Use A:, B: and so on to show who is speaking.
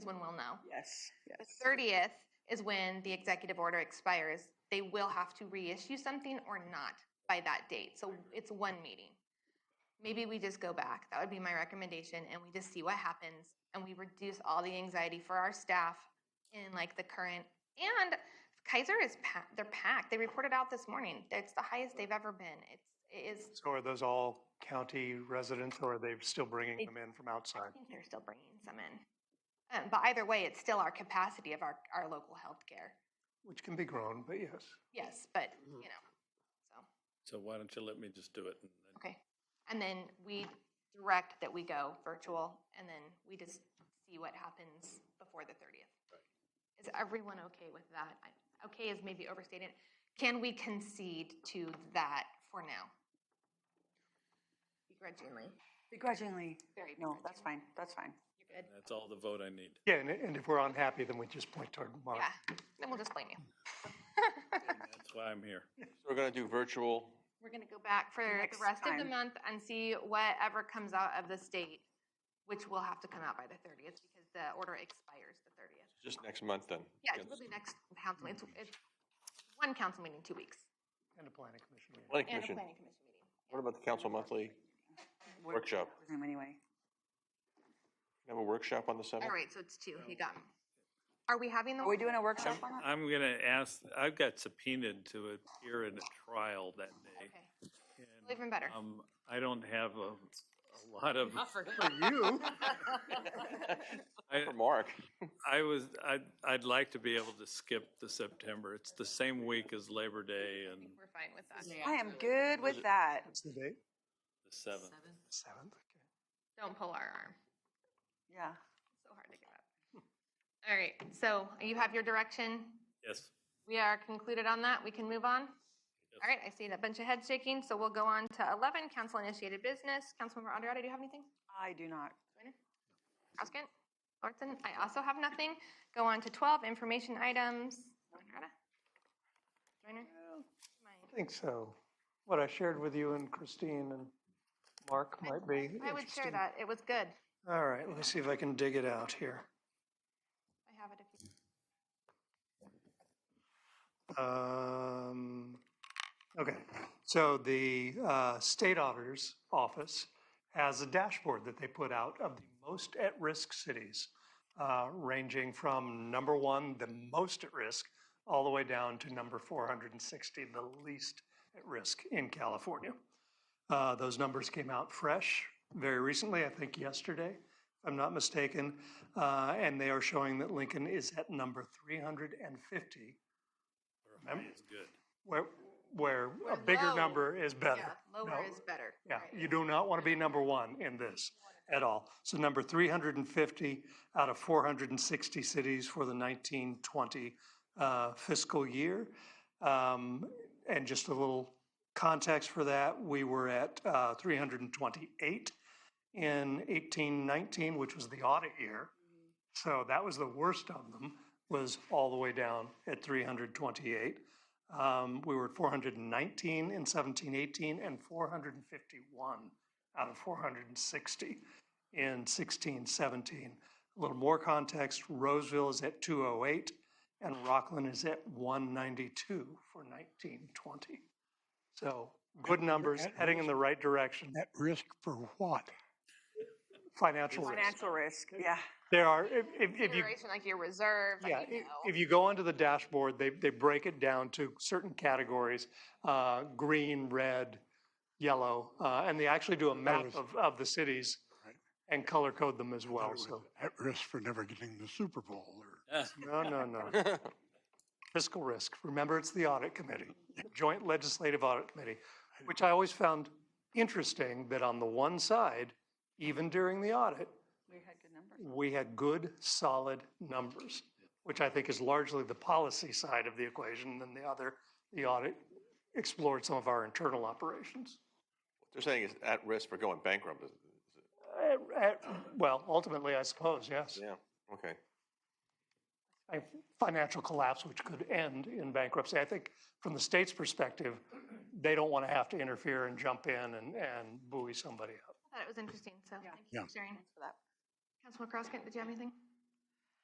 A: everyone will know.
B: Yes,
A: The
B: yes.
A: thirtieth is when the executive order expires. They will have to reissue something or not by that date. So it's one meeting. Maybe we just go back. That would be my recommendation, and we just see what happens, and we reduce all the anxiety for our staff in like the current. And Kaiser is pa- they're packed. They reported out this morning. It's the highest they've ever been. It's it is.
C: So are those all county residents or are they still bringing them in from
A: I
C: outside?
A: think they're still bringing some in. Um, but either way, it's still our capacity of our our local healthcare.
C: Which can be grown, but yes.
A: Yes, but, you
D: Mhm.
A: know, so,
D: So why don't you let me just do it? and then-
A: okay. And then we direct that we go virtual, and then we just see what happens before the thirtieth. Is everyone okay with that? I- Okay is maybe overstated. Can we concede to that for now? Begrudgingly.
B: Begrudgingly,
A: Very
B: no, that's
A: begrudgingly.
B: fine, that's fine.
A: You're good.
D: That's all the vote I need.
C: Yeah, and, and if we're unhappy, then we just point toward Mark.
A: Yeah, then we'll just blame you.
D: That's why I'm here.
E: So We're gonna do virtual.
A: We're gonna go back for the
B: Next
A: rest of the
B: time.
A: month and see whatever comes out of the state, which will have to come out by the thirtieth, because the order expires the thirtieth.
E: Just next month then.
A: Yeah, it's really next council, it's, it's one council meeting, two weeks,
C: And a planning commission. meeting.
A: and
E: Planning
A: a
E: commission.
A: planning commission meeting.
E: What about the council monthly?
B: We're-
E: Workshop.
B: Anyway,
E: Have a workshop on the seventh?
A: All right, so it's two, you got me. Are we having the?
B: are we doing a workshop on that?
D: I'm going to ask, I've got subpoenaed to appear in a trial that day.
A: Okay,
D: and,
A: well, even better.
D: Um, I don't have a, a lot of,
C: For you,
D: I,
E: For Mark.
D: I was, I'd, I'd like to be able to skip the September. It's the same week as Labor Day
A: I
D: and
A: think We're fine with that.
B: I am good with that.
C: what's the date?
D: the seventh.
C: Seventh, okay.
A: Don't pull our arm,
B: Yeah,
A: It's so hard to get up. All right, so you have your direction,
D: Yes.
A: we are concluded on that, we can move on? All right, I see a bunch of heads shaking, so we'll go on to eleven, council initiated business, Councilmember Andreotti, do you have anything?
B: I do not.
A: Askin, Orson, I also have nothing. Go on to 12, information items. Joyner? Joyner?
C: I think so. What I shared with you and Christine and Mark might be
A: Mine. I would share
C: interesting.
A: that. It was good.
C: All right, let me see if I can dig it out here.
A: I have it if you.
C: Um, okay, so the uh, state auditor's office has a dashboard that they put out of the most at-risk cities, uh, ranging from number one, the most at risk, all the way down to number 460, the least at risk in California. Uh, those numbers came out fresh very recently, I think yesterday, if I'm not mistaken, uh, and they are showing that Lincoln is at number 350 Remember-
D: It's good.
C: where, where
A: Where
C: a bigger
A: low-
C: number is better.
A: Yeah, Lower
C: No,
A: is better.
C: Yeah,
A: Right.
C: you do not want to be number one in this at all. So number three hundred and fifty out of four hundred and sixty cities for the nineteen twenty uh, fiscal year. Um, And just a little context for that, we were at uh, three hundred and twenty-eight in eighteen nineteen, which was the audit year. So that was the worst of them, was all the way down at 328. Um, we were at 419 in 1718 and 451 out of 460 in 1617. A little more context Roseville is at 208 and Rockland is at 192 for 1920. So good numbers, heading in the right direction.
F: At risk for what?
C: Financial risk.
B: Financial risk, yeah.
C: There are, if, if, if you
A: Consideration like your reserve, like,
C: Yeah,
A: you
C: i-
A: know.
C: if you go onto the dashboard, they, they break it down to certain categories, uh, green, red, yellow, uh, and they actually do a map
F: was-
C: of, of the cities
F: Right.
C: and color code them as
F: Thought
C: well,
F: it was
C: so,
F: At risk for never getting the Super Bowl or
D: Ah,
C: no, no, no. Fiscal risk, remember, it's the audit committee, joint legislative audit committee, which I always found interesting that on the one side, even during the audit,
B: We had good numbers.
C: we had good, solid numbers, which I think is largely the policy side of the equation than the other. The audit explored some of our internal operations.
E: They're saying it's at risk for going bankrupt. is- is it?
C: Uh, uh, Well, ultimately, I suppose, yes.
E: Yeah, okay.
C: A financial collapse which could end in bankruptcy. I think from the state's perspective, they don't want to have to interfere and jump in and, and buoy somebody up.
A: I thought it was interesting, so
B: Yeah.
A: thank you
F: Yeah.
A: for sharing.
B: Thanks for that.
A: Councilman Crosskin, did you have anything?